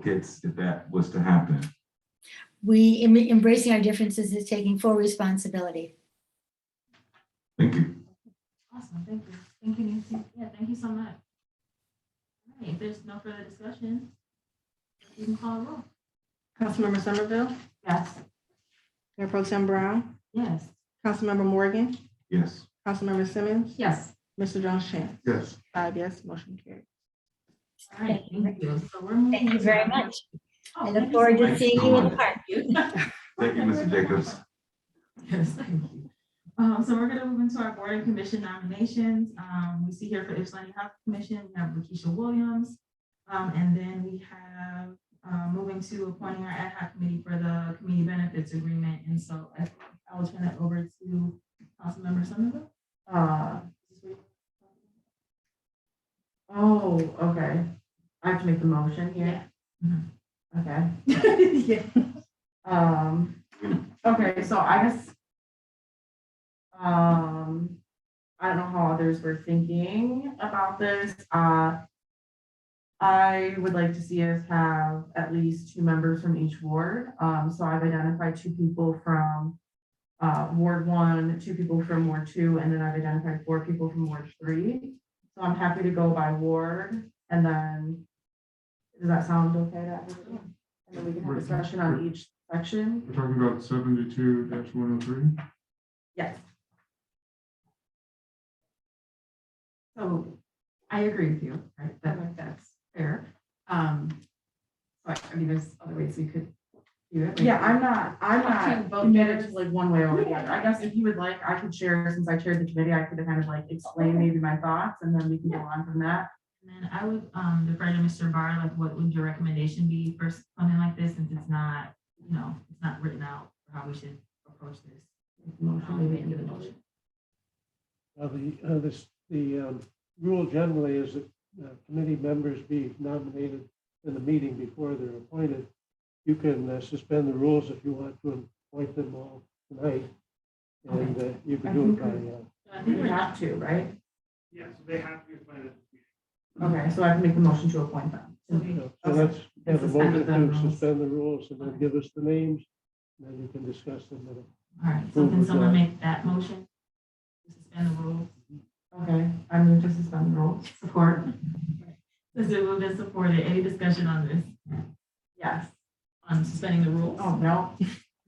kids if that was to happen. We em- embracing our differences is taking full responsibility. Thank you. Awesome, thank you. Thank you, Nancy. Yeah, thank you so much. All right, if there's no further discussion, you can call a roll. Councilmember Somerville, Yes. Mayor Pro Tem Brown, Yes. Councilmember Morgan, Yes. Councilmember Simmons, Yes. Mr. Jones Chan. Yes. Five yes, motion carried. All right, thank you. So we're Thank you moving very on. much. Oh, I thank look you forward so to much. seeing you in the park. Thank you, Mr. Jacobs. Yes, thank you. Um, so we're gonna move into our board and commission nominations. Um, we see here for Ypsilanti Health Commission, we have Lakeisha Williams. Um, and then we have, uh, moving to appointing our ad hoc committee for the community benefits agreement. And so I, I will turn it over to Councilmember Somerville. Uh, oh, okay. I have to make the motion here. Mm-hmm. Okay. Yeah. Um, okay, so I guess. Um, I don't know how others were thinking about this. Uh. I would like to see us have at least two members from each ward. Um, so I've identified two people from. Uh, Ward one, two people from Ward two, and then I've identified four people from Ward three. So I'm happy to go by ward and then. Does that sound okay to everyone? And then we can have discussion on each section. We're talking about seventy-two one oh three. Yes. So I agree with you, right? That like that's fair. Um, but I mean, there's other ways we could do it. Yeah, I'm not, I'm not committed to like one way or the other. I guess if you would like, I could share, since I chaired the committee, I could kind of like explain maybe my thoughts and then we can go on from that. And then I would um, defer to Mr. Barr, like what would your recommendation be for something like this, since it's not, you know, it's not written out for how we should approach this. Motion, maybe Make the individual. motion. Uh, the, uh, this, the, um, rule generally is that uh, committee members be nominated in the meeting before they're appointed. You can uh, suspend the rules if you want to appoint them all tonight. And, uh, you can do it by, uh, So I think We we're not, have to, right? Yes, they have to be appointed. Okay, so I can make the motion to appoint them. so we- so let's have a Suspend motion the to rules. suspend the rules and then give us the names. And then you can discuss them. at a- all right, so can someone make that motion? To Suspend the rules, Okay, I move to suspend the rules. support. Is it moved and supported? Any discussion on this, Yes. on suspending the rules? Oh, no.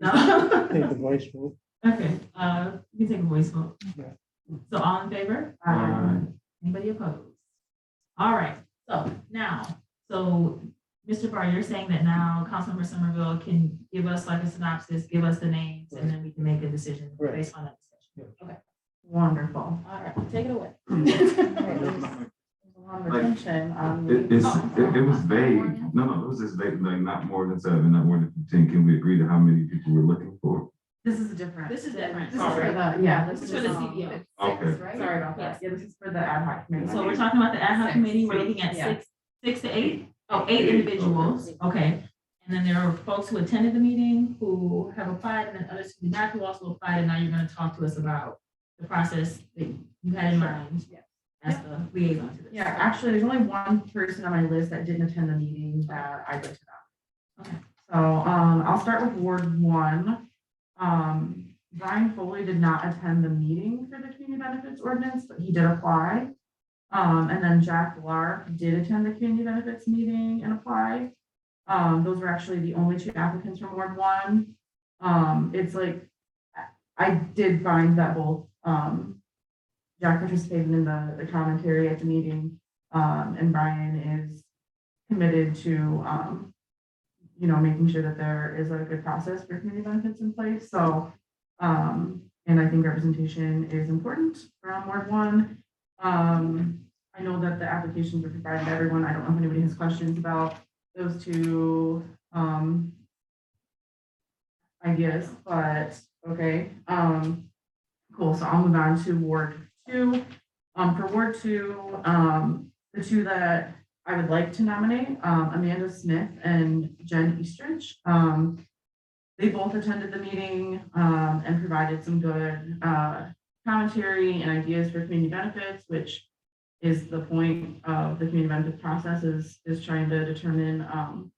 No? Take the voice vote. Okay, uh, you can take a voice vote. Yeah. So all in favor? Uh, Anybody opposed? All right, so now, so Mr. Barr, you're saying that now Councilmember Somerville can give us like a synopsis, give us the names, and then we can make a decision Right. based on that. Wonderful. All right, take it away. A lot of attention on It, the- it's, it, it was vague. No, no, it was just vague, like not more than seven, not more than fifteen. Can we agree to how many people we're looking for? This is different. This is different. This is All for right. the, yeah. This is for the E um, CBO. Okay. Sorry about that. Yeah, this is for the ad hoc committee. So we're talking about the ad hoc Six. committee, we're looking at Yeah. six, six to eight? Oh, eight individuals, okay. And then there are folks who attended the meeting, who have applied, and then others who did not, who also applied, and now you're gonna talk to us about the process that you had in mind Yeah. as the liaison to this. Yeah, actually, there's only one person on my list that didn't attend the meeting that I'd like to Okay. nominate. So, um, I'll start with Ward one. Um, Brian Foley did not attend the meeting for the community benefits ordinance, but he did apply. Um, and then Jack Lark did attend the community benefits meeting and applied. Um, those were actually the only two applicants from Ward one. Um, it's like, I- I did find that both, um, Jack participated in the, the commentary at the meeting, um, and Brian is committed to, um, you know, making sure that there is a good process for community benefits in place, so, um, and I think representation is important from Ward One. Um, I know that the applications were provided to everyone, I don't know if anybody has questions about those two, um, ideas, but, okay, um, Cool, so I'll move on to Ward two. Um, for Ward two, um, the two that I would like to nominate, um, Amanda Smith and Jen Eastridge. Um, they both attended the meeting, um, and provided some good, uh, commentary and ideas for community benefits, which is the point of the community benefits process is, is trying to determine, um,